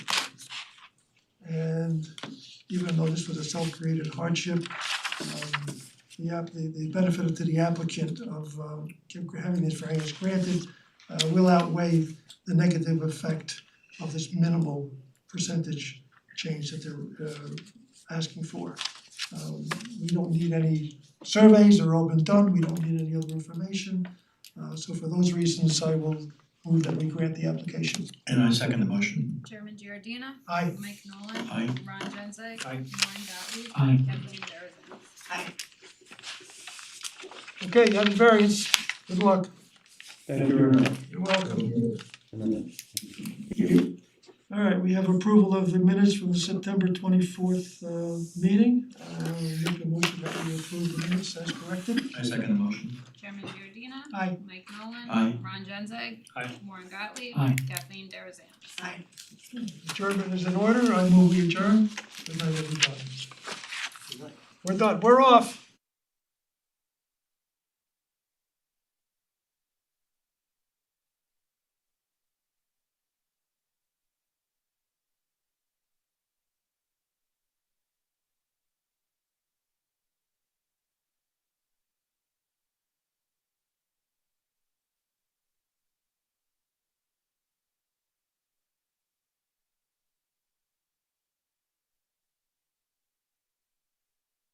even though this was a self-created hardship. Um the app, the the benefit to the applicant of um having this variance granted uh will outweigh the negative effect of this minimal percentage change that they're uh asking for. Um we don't need any surveys, they're all been done, we don't need any other information. Uh so for those reasons, I will move that we grant the application. And I second the motion. Chairman Giordina. Aye. Mike Nolan. Aye. Ron Genzeg. Aye. Warren Gottlieb. Aye. Kathleen Darazan. Okay, you have the variance, good luck. Thank you very much. You're welcome. Alright, we have approval of the minutes from the September twenty fourth uh meeting. Uh make a motion that we approve the minutes as corrected. I second the motion. Chairman Giordina. Aye. Mike Nolan. Aye. Ron Genzeg. Aye. Warren Gottlieb. Aye. Kathleen Darazan. Adjournment is in order, I move we adjourn. Good night, everybody. We're done, we're off.